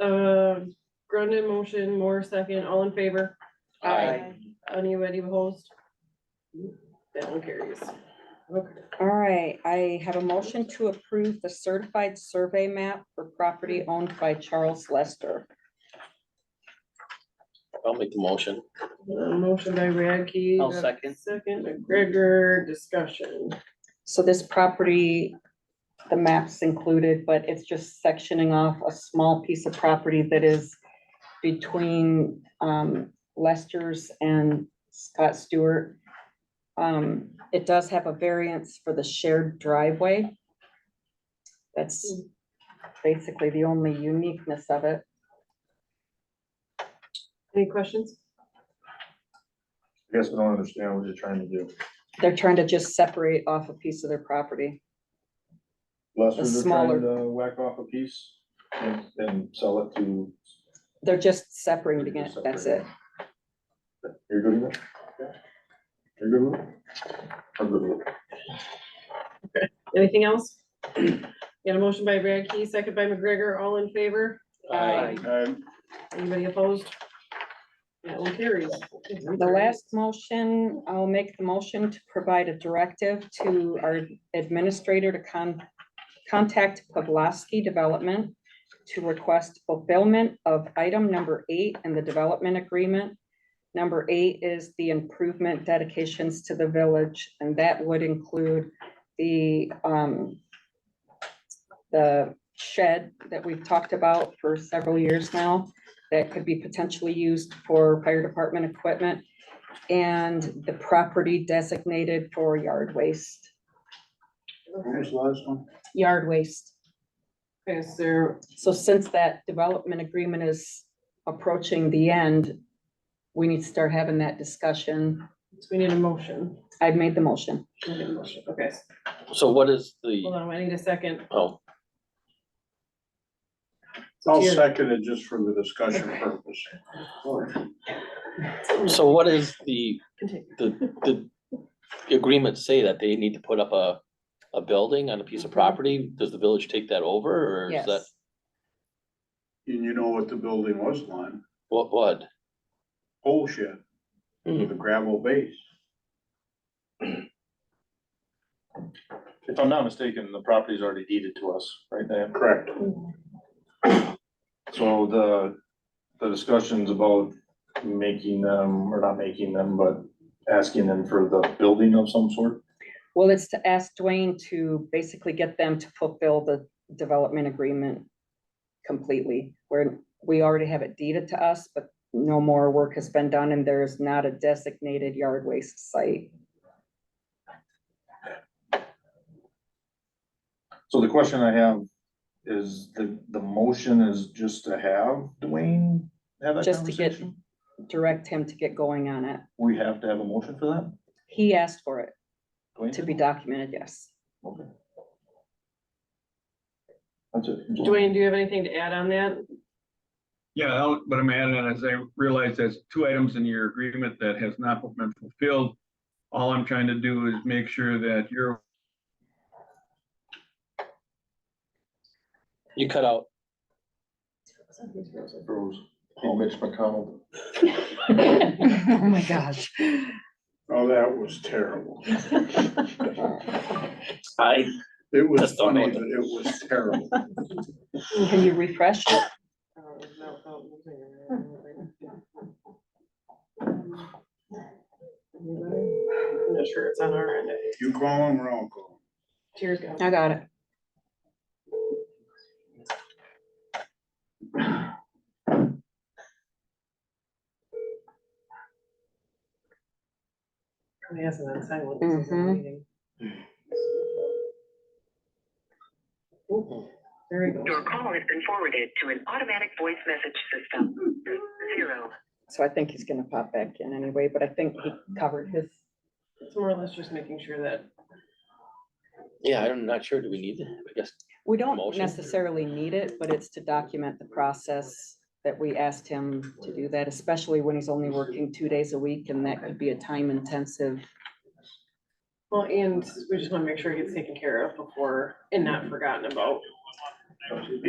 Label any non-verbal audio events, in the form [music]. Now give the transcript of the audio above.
Um, Grundon motion, Moore second, all in favor, Aye. anybody opposed? That one carries. Okay, All right, I have a motion to approve the certified survey map for property owned by Charles Lester. I'll make the motion. uh, motion by Radke. I'll uh, second. Second, McGregor, discussion. So this property, the map's included, but it's just sectioning off a small piece of property that is between um, Lester's and Scott Stewart. Um, It does have a variance for the shared driveway. That's basically the only uniqueness of it. Any questions? I guess I don't understand what you're trying to do. They're trying to just separate off a piece of their property. Lester's trying smaller- to uh, whack off a piece and, and sell it to, They're just separating it, that's it. you're good with it? You're good with it? I'm good with it. Anything else? Got a motion by Radke, second by McGregor, all in favor, Aye. anybody opposed? That one carries. Okay, The last motion, I'll make the motion to provide a directive to our administrator to con- contact Pavlovsky Development to request fulfillment of item number eight in the development agreement. Number eight is the improvement dedications to the village, and that would include the, um, the shed that we've talked about for several years now that could be potentially used for fire department equipment and the property designated for yard waste, Who's last one? yard waste. Okay, is there, So since that development agreement is approaching the end, we need to start having that discussion. so we need a motion. I've made the motion. We need a motion. Okay, So what is hold the, on, I need a second. oh, I'll Here. second it just for the discussion purpose. so what is the, Continue. the, the agreements say that they need to put up a, a building on a piece of property? Does the village take that over or is Yes. that, And you know what the building was, Lon? what, what? Pole shed Mm-hmm. with a gravel base. If I'm not mistaken, the property's already deeded to us, right, Dan? Correct. So the, the discussions about making them, or not making them, but asking them for the building of some sort? Well, it's to ask Dwayne to basically get them to fulfill the development agreement completely, where we already have it deeded to us, but no more work has been done and there is not a designated yard waste site. So the question I have is the, the motion is just to have Dwayne have that Just to get, conversation? direct him to get going on it. We have to have a motion for that? He asked for it Dwayne to did? be documented, yes. Okay. That's it. Dwayne, do you have anything to add on that? Yeah, I'll- what I'm adding on is I realize there's two items in your agreement that has not been fulfilled. All I'm trying to do is make sure that you're, You cut out, Bruce, Paul Mitch McConnell. [laughs] Oh, my gosh. Oh, that was terrible. I, It was Just don't know what funny, but it was terrible. Can you refresh? it? I'm not sure it's on our end. You call him or I'll call Tears go. I got it. Probably hasn't been silent since the Mhm. meeting. Ooh, There we Your go. call has been forwarded to an automatic voice message system. Zero. So I think he's gonna pop back in anyway, but I think he covered his, It's more or less just making sure that yeah, I'm not sure. Do we need it? I guess. we don't Motion. necessarily need it, but it's to document the process that we asked him to do that, especially when he's only working two days a week and that could be a time intensive. Well, and we just wanna make sure it gets taken care of before and not forgotten about. him.